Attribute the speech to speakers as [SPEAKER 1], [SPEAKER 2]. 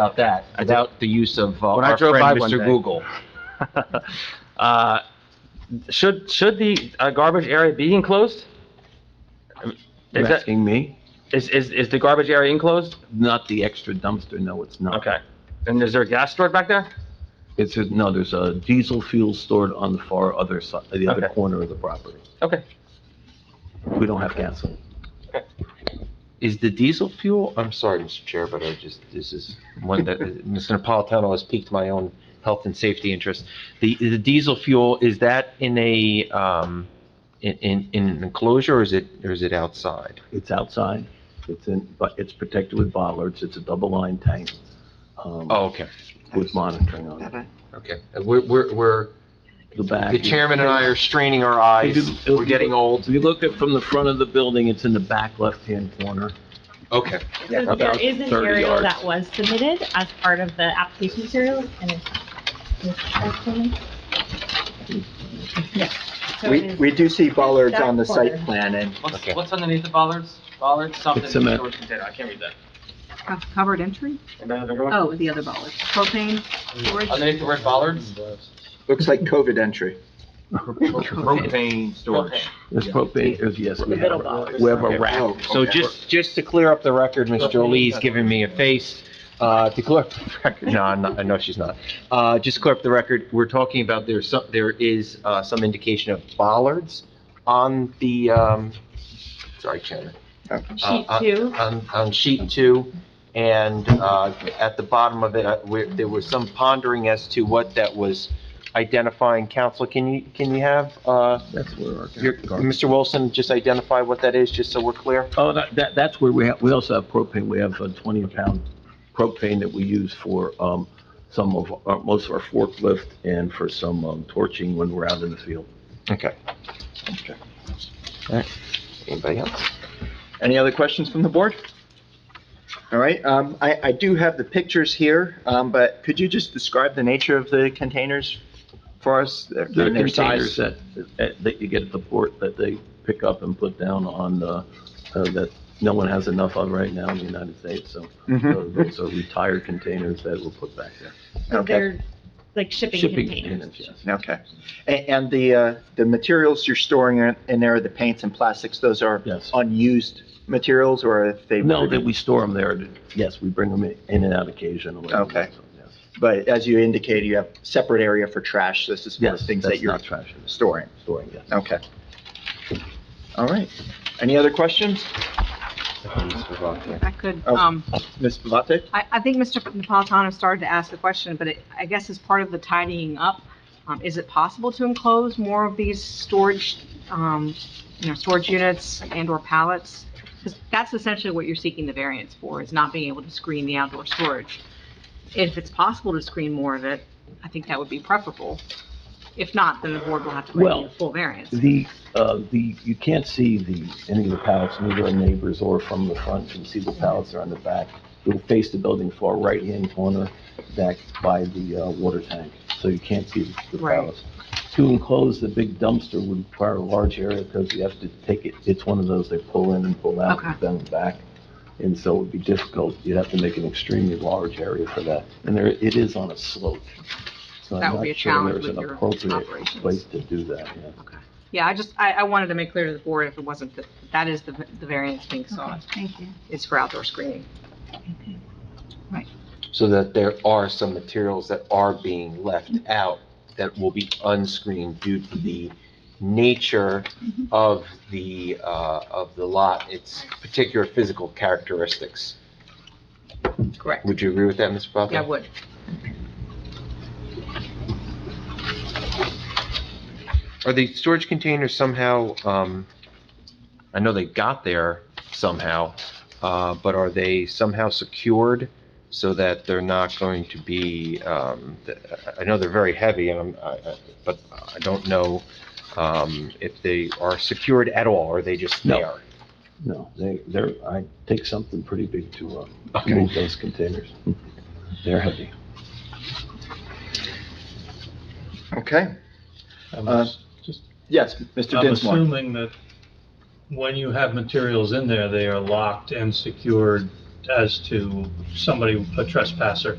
[SPEAKER 1] about that, without the use of uh,
[SPEAKER 2] When I
[SPEAKER 1] our
[SPEAKER 2] drove
[SPEAKER 1] friend
[SPEAKER 2] by one
[SPEAKER 1] Mr.
[SPEAKER 2] day.
[SPEAKER 1] Google.
[SPEAKER 2] Uh, Should, should the uh, garbage area be enclosed?
[SPEAKER 3] You're
[SPEAKER 2] Is that,
[SPEAKER 3] asking me?
[SPEAKER 2] is, is, is the garbage area enclosed?
[SPEAKER 3] Not the extra dumpster, no, it's not.
[SPEAKER 2] Okay. And is there a gas stored back there?
[SPEAKER 3] It's, a- no, there's a diesel fuel stored on the far other side, the other
[SPEAKER 2] Okay.
[SPEAKER 3] corner of the property.
[SPEAKER 2] Okay.
[SPEAKER 3] We don't have gasoline.
[SPEAKER 1] Is the diesel fuel, I'm sorry, Mr. Chair, but I just, this is one that, Mr. Napolitano has piqued my own health and safety interest. The, the diesel fuel, is that in a, um, in, in in an enclosure, or is it, or is it outside?
[SPEAKER 3] It's outside, it's in, but it's protected with bollards, it's a double line tank, um,
[SPEAKER 1] Oh, okay,
[SPEAKER 3] with monitoring on it.
[SPEAKER 1] okay. Uh, We're, we're, we're,
[SPEAKER 3] The back.
[SPEAKER 1] the chairman and I are straining our eyes,
[SPEAKER 3] If you-
[SPEAKER 1] we're getting
[SPEAKER 3] If
[SPEAKER 1] old.
[SPEAKER 3] you look at from the front of the building, it's in the back left-hand corner.
[SPEAKER 1] Okay,
[SPEAKER 4] So there
[SPEAKER 3] About
[SPEAKER 4] is an
[SPEAKER 3] 30
[SPEAKER 4] aerial
[SPEAKER 3] yards.
[SPEAKER 4] that was submitted as part of the application materials and it's. Yeah. So it
[SPEAKER 5] We,
[SPEAKER 4] is-
[SPEAKER 5] we do see bollards on the site
[SPEAKER 4] Back
[SPEAKER 5] plan, and
[SPEAKER 2] What's,
[SPEAKER 1] Okay.
[SPEAKER 2] what's underneath the bollards? Bollards, something,
[SPEAKER 3] It's cement.
[SPEAKER 2] storage container, I can't read that.
[SPEAKER 6] Co- Covered entry?
[SPEAKER 2] Anybody have a go?
[SPEAKER 6] Oh, the other bollard. Propane storage?
[SPEAKER 2] Underneath the word bollards?
[SPEAKER 5] looks like COVID entry.
[SPEAKER 1] propane storage.
[SPEAKER 3] There's propane, there's, yes, we
[SPEAKER 4] The
[SPEAKER 3] have
[SPEAKER 4] middle
[SPEAKER 3] a,
[SPEAKER 4] bollards.
[SPEAKER 3] we have a rack.
[SPEAKER 5] Oh,
[SPEAKER 1] So
[SPEAKER 5] okay.
[SPEAKER 1] just, just to clear up the record, Ms. Jolie's giving me a face, uh, to clear up the record, no, I'm not, I know she's not. Uh, just to clear up the record, we're talking about there's some, there is, uh, some indication of bollards on the, um, sorry, Chairman,
[SPEAKER 4] Sheet
[SPEAKER 1] uh,
[SPEAKER 4] two,
[SPEAKER 1] on, on sheet two, and, uh, at the bottom of it, uh, where, there was some pondering as to what that was identifying. Counsel, can you, can you have, uh,
[SPEAKER 3] That's where our
[SPEAKER 1] your,
[SPEAKER 3] garbage-
[SPEAKER 1] Mr. Wilson, just identify what that is, just so we're clear?
[SPEAKER 3] Oh, that, that, that's where we have, we also have propane, we have a twenty pound propane that we use for, um, some of, our most of our forklift and for some, um, torching when we're out in the field.
[SPEAKER 1] Okay. Alright. Anybody else?
[SPEAKER 5] Any other questions from the board? All right, um, I, I do have the pictures here, um, but could you just describe the nature of the containers for us? their-
[SPEAKER 3] There are
[SPEAKER 5] their
[SPEAKER 3] containers
[SPEAKER 5] size?
[SPEAKER 3] that, that that you get at the port that they pick up and put down on the, uh, that no one has enough of right now in the United States, so
[SPEAKER 5] Mhm.
[SPEAKER 3] those those are retired containers that were put back there.
[SPEAKER 4] so
[SPEAKER 5] Okay.
[SPEAKER 4] they're like shipping
[SPEAKER 3] Shipping
[SPEAKER 4] containers.
[SPEAKER 3] yes.
[SPEAKER 5] Okay. A- And the, uh, the materials you're storing in- in there, the paints and plastics, those are
[SPEAKER 3] Yes.
[SPEAKER 5] unused materials, or if they?
[SPEAKER 3] No, that we store them there, yes, we bring them in in and out occasionally.
[SPEAKER 5] Okay.
[SPEAKER 3] So, yes.
[SPEAKER 5] But as you indicated, you have separate area for trash, this is for
[SPEAKER 3] Yes,
[SPEAKER 5] things that
[SPEAKER 3] that's
[SPEAKER 5] you're
[SPEAKER 3] not trash, it's
[SPEAKER 5] storing.
[SPEAKER 3] storing, yes.
[SPEAKER 5] Okay. All right. Any other questions?
[SPEAKER 6] If I could,
[SPEAKER 5] Oh.
[SPEAKER 6] um,
[SPEAKER 5] Ms. Pavate?
[SPEAKER 6] I, I think Mr. Napolitano started to ask the question, but it, I guess as part of the tidying up, um, is it possible to enclose more of these storage, um, you know, storage units and/or pallets? Because that's essentially what you're seeking the variance for, is not being able to screen the outdoor storage. If it's possible to screen more of it, I think that would be preferable. If not, then the board will have to grant you
[SPEAKER 3] Well,
[SPEAKER 6] a full variance.
[SPEAKER 3] The, uh, the, you can't see the, any of the pallets, neither our neighbors or from the front, you can see the pallets are on the back. You'll face the building far right-hand corner, back by the, uh, water tank, so you can't see the
[SPEAKER 6] Right.
[SPEAKER 3] pallets. To enclose the big dumpster would require a large area, because you have to take it, it's one of those they pull in and pull out,
[SPEAKER 6] Okay.
[SPEAKER 3] then back. And so it would be difficult, you'd have to make an extremely large area for that, and there, it is on a slope. So I'm
[SPEAKER 6] That would be
[SPEAKER 3] not
[SPEAKER 6] a
[SPEAKER 3] sure
[SPEAKER 6] challenge
[SPEAKER 3] there's
[SPEAKER 6] with
[SPEAKER 3] an
[SPEAKER 6] your
[SPEAKER 3] appropriate
[SPEAKER 6] operations.
[SPEAKER 3] Place to do that, yeah.
[SPEAKER 6] Yeah, I just, I, I wanted to make clear to the board if it wasn't, that that is the, the variance being sought,
[SPEAKER 4] Thank you.
[SPEAKER 6] is for outdoor screening.
[SPEAKER 1] So that there are some materials that are being left out that will be unscreened due to the nature of the, uh, of the lot, its particular physical characteristics.
[SPEAKER 6] Correct.
[SPEAKER 1] Would you agree with that, Mr. Buffett?
[SPEAKER 6] Yeah, I would.
[SPEAKER 1] Are the storage containers somehow, um, I know they got there somehow, uh, but are they somehow secured so that they're not going to be, um, th- I I know they're very heavy and I'm, I- I- but I don't know, um, if they are secured at all, or are they just
[SPEAKER 3] No.
[SPEAKER 1] there?
[SPEAKER 3] No, they, they're, I take something pretty big to, uh,
[SPEAKER 1] Okay.
[SPEAKER 3] move those containers. They're heavy.
[SPEAKER 5] Okay.
[SPEAKER 7] I'm
[SPEAKER 5] Uh,
[SPEAKER 7] ass-
[SPEAKER 5] Yes, Mr.
[SPEAKER 7] I'm
[SPEAKER 5] Dinsmore.
[SPEAKER 7] assuming that when you have materials in there, they are locked and secured as to somebody, a trespasser,